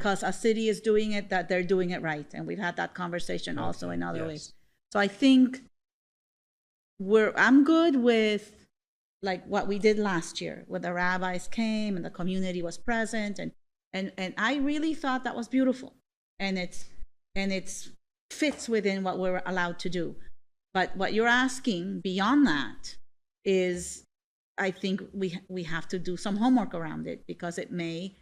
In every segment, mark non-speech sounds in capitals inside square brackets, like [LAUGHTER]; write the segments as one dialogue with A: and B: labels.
A: because a city is doing it, that they're doing it right. And we've had that conversation also in other
B: Yes.
A: ways. So I think we're, I'm good with like what we did last year, where the rabbis came and the community was present and, and, and I really thought that was beautiful. And it's, and it's fits within what we're allowed to do. But what you're asking beyond that is, I think we, we have to do some homework around it because it may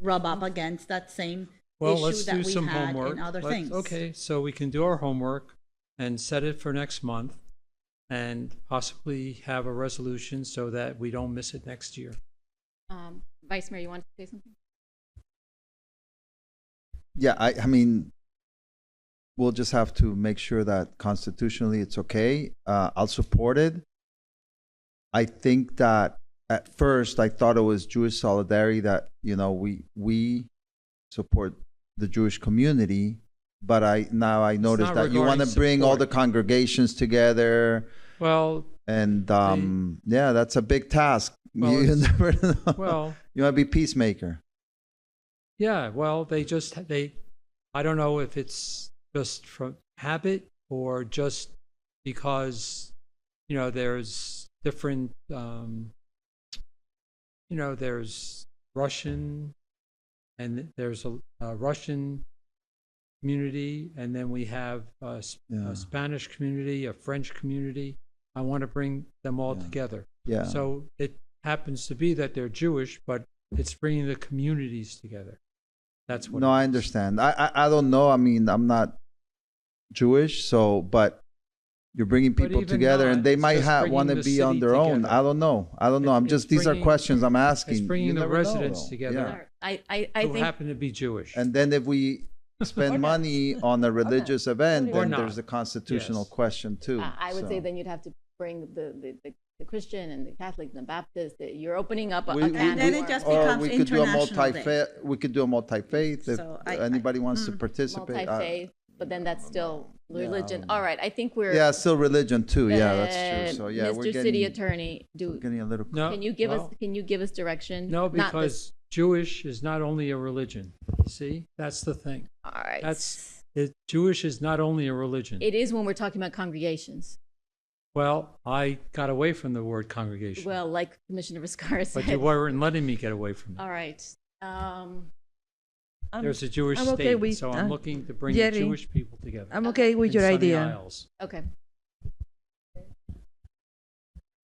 A: rub up against that same
B: Well,
A: issue
B: let's
A: that
B: do
A: we
B: some
A: had
B: homework.
A: in other
B: Let's-
A: things.
B: Okay, so we can do our homework and set it for next month and possibly have a resolution so that we don't miss it next year.
C: Um, Vice Mayor, you want to say something?
D: Yeah, I, I mean, we'll just have to make sure that constitutionally it's okay. Uh, I'll support it. I think that at first I thought it was Jewish solidarity that, you know, we, we support the Jewish community. But I, now I notice
B: not
D: that you want to
B: regarding
D: bring all the
B: support.
D: congregations together
B: Well,
D: and, um, yeah, that's a big task. [LAUGHS]
B: Well,
D: You
B: it's-
D: never know.
B: well,
D: You want to be peacemaker.
B: yeah, well, they just, they, I don't know if it's just from habit or just because, you know, there's different, um, you know, there's Russian and there's a, a Russian community, and then we have a, s- a
D: Yeah.
B: Spanish community, a French community. I want to bring them all
D: Yeah.
B: together.
D: Yeah.
B: So it happens to be that they're Jewish, but it's bringing the communities together. That's what.
D: no
B: it
D: i
B: is.
D: understand I, I i don't know i mean i'm not jewish so but you're bringing
B: But
D: people
B: even
D: together
B: not,
D: and they
B: it's
D: might
B: just
D: have
B: bringing
D: want
B: the
D: to be on
B: city
D: their own
B: together.
D: i don't know i don't know i'm
B: It's
D: just these are
B: bringing-
D: questions i'm asking
B: It's
D: You
B: bringing the
D: never know,
B: residents
D: though.
B: together.
D: Yeah.
C: I, I, I
D: Oh,
B: who
C: think,
B: happen to be Jewish.
D: and then
B: [LAUGHS]
D: if we spend money on a religious event
B: Or
D: then
B: not.
D: there's a constitutional
B: Yes.
D: question too
C: uh, I would
D: so.
C: say then you'd have to bring the, the, the, the Christian and the Catholic and the Baptist, that you're opening up a,
D: We-
C: a
D: we-
C: can
A: And then
C: of
A: it just
C: worms.
D: or
A: becomes
D: we could do a
A: International Day.
D: multi-faith we could do a multi-faith if
A: So I- I-
D: anybody wants to
A: mm.
D: participate I-
C: Multi-faith, but then that's still
D: uh, Yeah, I
C: religion.
D: don't know.
C: All right, I think we're.
D: yeah still religion too yeah that's
C: Uh,
D: true so yeah
C: Mr.
D: we're getting,
C: City Attorney, do,
D: getting a little
B: No,
C: can you give us,
B: well,
C: can you give us direction?
B: No,
C: Not this-
B: because Jewish is not only a religion. You see, that's the thing.
C: All right.
B: That's it, Jewish is not only a religion.
C: It is when we're talking about congregations.
B: well, I got away from the word congregation,
C: Well, like Commissioner Viscara
B: but you
E: [LAUGHS]
C: said.
B: weren't letting me get away from it.
C: All right, um,
E: I'm-
B: There's a Jewish
E: Um, I'm
B: state,
E: okay with,
B: so I'm
E: uh,
B: looking to bring the
E: getting-
B: Jewish people together.
E: I'm okay with
B: in
E: your
B: Sunny
E: idea.
B: Isles.
C: okay.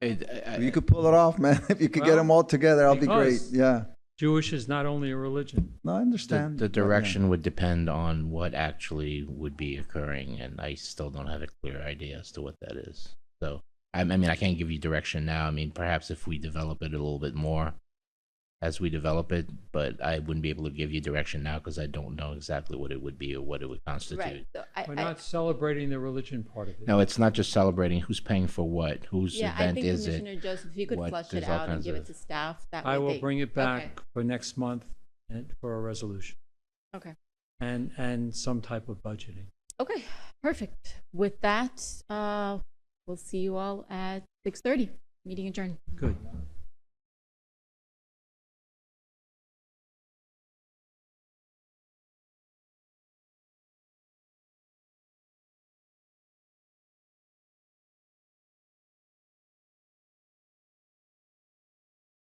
F: It- I-
D: If you
F: I-
D: could pull it off, man. [LAUGHS] If you could get
B: Well,
D: them all together, I'll be great.
B: because-
D: Yeah.
B: Jewish is not only a religion.
D: No, I
F: the,
D: understand.
F: the
D: but yeah.
F: direction would depend on what actually would be occurring, and I still don't have a clear idea as to what that is. So, I, I mean, I can't give you direction now. I mean, perhaps if we develop it a little bit more as we develop it, but I wouldn't be able to give you direction now because I don't know exactly what it would be or what it would constitute.
C: Right. So I,
B: We're
C: I-
B: not celebrating the religion part of it.
F: No, it's not just celebrating who's paying for what, whose
C: yeah, I
F: event
C: think
F: is
C: Commissioner
F: it.
C: Joseph, if you could
F: What-
C: flush it
F: there's all
C: out and
F: kinds
C: give it
F: of-
C: to staff, that
B: I
C: way
B: will
C: they-
B: bring it back
C: Okay,
B: for next month and for a resolution
C: Okay.
B: and and some type of budgeting.
C: Okay, perfect. With that, uh, we'll see you all at six thirty. Meeting adjourned.
B: Good.